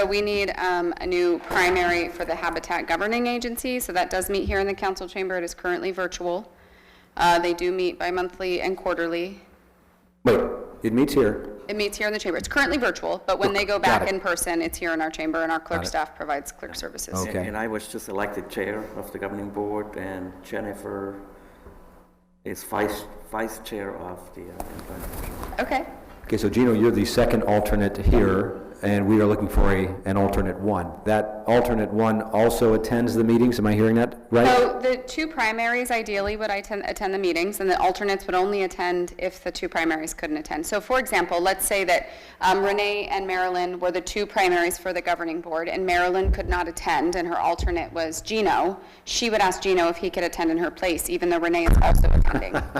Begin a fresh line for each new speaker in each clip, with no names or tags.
So we need um, a new primary for the Habitat Governing Agency, so that does meet here in the council chamber. It is currently virtual. Uh, They do meet bi-monthly and quarterly.
Wait, it meets here.
It meets here in the chamber. It's currently virtual, but when they go back
it.
in person, it's here in our chamber, and our clerk
it.
staff provides clerk services.
Okay.
And I was just elected chair of the governing board, and Jennifer is vice, vice chair of the uh, employment. board.
Okay.
Okay, so Gino, you're the second alternate here, and we are looking for a, an alternate one. That alternate one also attends the meetings, am I hearing that right?
So the two primaries ideally would attend, attend the meetings, and the alternates would only attend if the two primaries couldn't attend. So for example, let's say that um, Renee and Marilyn were the two primaries for the governing board, and Marilyn could not attend, and her alternate was Gino. She would ask Gino if he could attend in her place, even though Renee is also attending.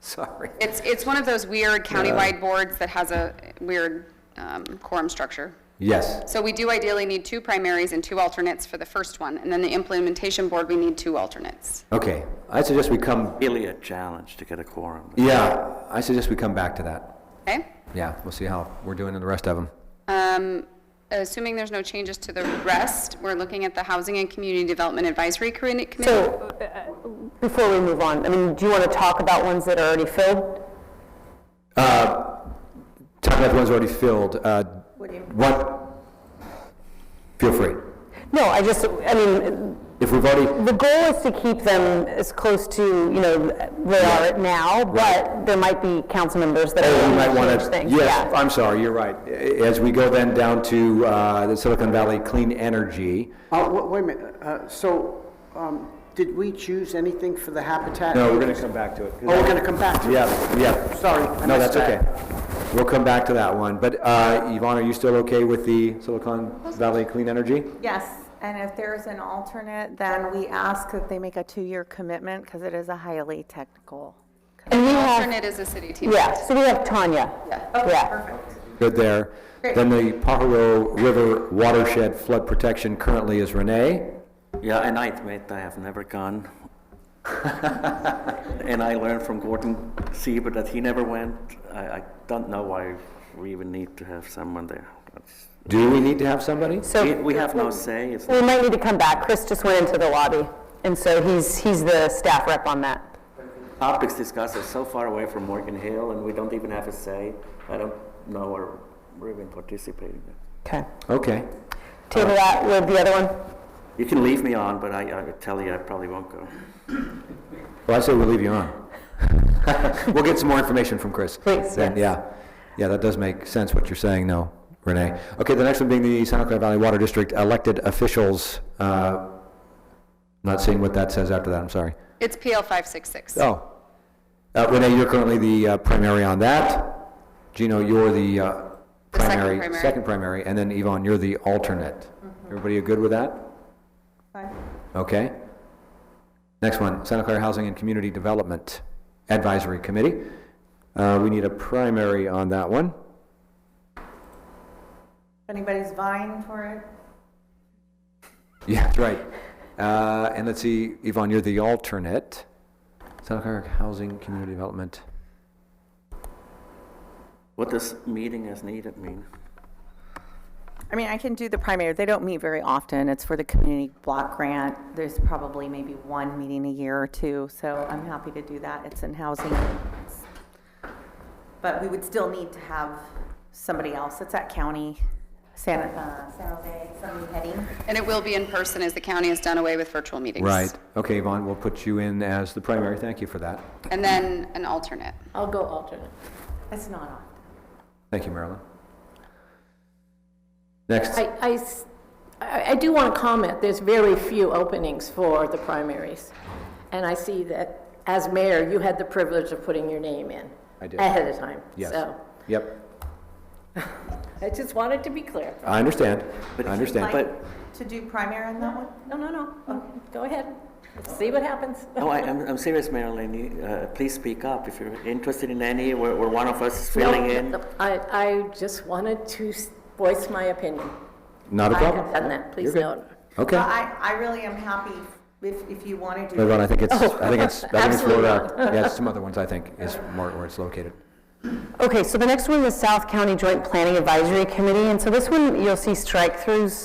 Sorry.
It's, it's one of those weird countywide boards that has a weird um, quorum structure.
Yes,
So we do ideally need two primaries and two alternates for the first one, and then the implementation board, we need two alternates.
okay. I suggest we come,
Really a challenge to get a quorum.
yeah, I suggest we come back to that.
Okay?
Yeah, we'll see how we're doing in the rest of them.
Um, Assuming there's no changes to the rest, we're looking at the Housing and Community Development Advisory Commi- Committee.
So, uh, before we move on, I mean, do you want to talk about ones that are already filled?
Top left one's already filled. Uh, What? Feel free.
No, I just, I mean,
If we've already,
the goal is to keep them as close to, you know, they are now, but there might be council members that
Oh,
are
we might
want
want
to change
to,
things.
yes,
Yeah.
I'm sorry, you're right. As we go then down to uh, the Silicon Valley Clean Energy,
Uh, wa- Wait a minute, Uh, so um, did we choose anything for the habitat?
no, we're going to come back to it.
Oh, we're going to come back to it?
Yeah, yeah.
Sorry, I
No,
missed
that's okay.
that.
We'll come back to that one. But uh, Yvonne, are you still okay with the Silicon Valley Clean Energy?
Yes, and if there's an alternate, then we ask that they make a two-year commitment because it is a highly technical.
And we have,
Alternate is a city team.
uh, yeah, so we have Tanya. Yeah.
Good there.
Great.
Then the Pajaro River Watershed Flood Protection currently is Renee.
Yeah, and I admit I have never gone. And I learned from Gordon Seaver that he never went. I, I don't know why we even need to have someone there. That's-
Do we need to have somebody?
We,
So
we have no say, it's
we might need to come back. Chris just went into the lobby, and so he's, he's the staff rep on that.
topics discussed are so far away from Morgan Hill, and we don't even have a say. I don't know or we're even participating.
Okay.
Okay.
Table that with the other one.
You can leave me on, but I, I tell you, I probably won't go.
Well, I say we'll leave you on. We'll get some more information from Chris.
Please,
Then, Yeah, yeah, that does make sense what you're saying, though, Renee. Okay, the next one being the Santa Clara Valley Water District elected officials. uh, Not seeing what that says after that, I'm sorry.
It's PL 566.
Oh. Uh, Renee, you're currently the uh, primary on that. Gino, you're the uh,
The second
primary.
primary. Mm-hmm.
primary, and then Yvonne, you're the alternate. Everybody good with that? Okay. Next one, Santa Clara Housing and Community Development Advisory Committee. Uh, We need a primary on that one.
Anybody's vying for it?
Yeah, that's right. Uh, And let's see, Yvonne, you're the alternate. Santa Clara Housing Community Development.
What does meeting as needed mean?
I mean, I can do the primary. They don't meet very often. It's for the community block grant. There's probably maybe one meeting a year or two, so I'm happy to do that. It's in housing. But we would still need to have somebody else. It's at county, San, uh, San Jose, somebody heading.
And it will be in person as the county has done away with virtual meetings.
Right. Okay, Yvonne, we'll put you in as the primary. Thank you for that.
And then an alternate.
I'll go alternate. It's not often.
Thank you, Marilyn. Next,
I- I, s- I- I do want to comment, there's very few openings for the primaries. And I see that as mayor, you had the privilege of putting your name in.
I did.
Ahead of time.
yes.
So
Yep,
I just wanted to be clear.
I understand, I
But-
understand.
But-
Like To do primary on that one?
No, no,
Oh.
no, go ahead, see what happens.
No, I, I'm, I'm serious, Marilyn. You, uh, please speak up if you're interested in any, or, or one of us is filling
No,
in.
I, I just wanted to s- voice my opinion.
Not a
I have
problem.
done that,
You're
please
good.
note.
Okay.
Well, I, I really am happy if, if you want to do
Yvonne, I
it.
think it's, I think it's, I think it's
absolutely
Florida. Yeah, it's some other ones, I think, is more where it's located.
Okay, so the next one is South County Joint Planning Advisory Committee, and so this one, you'll see strike-throughs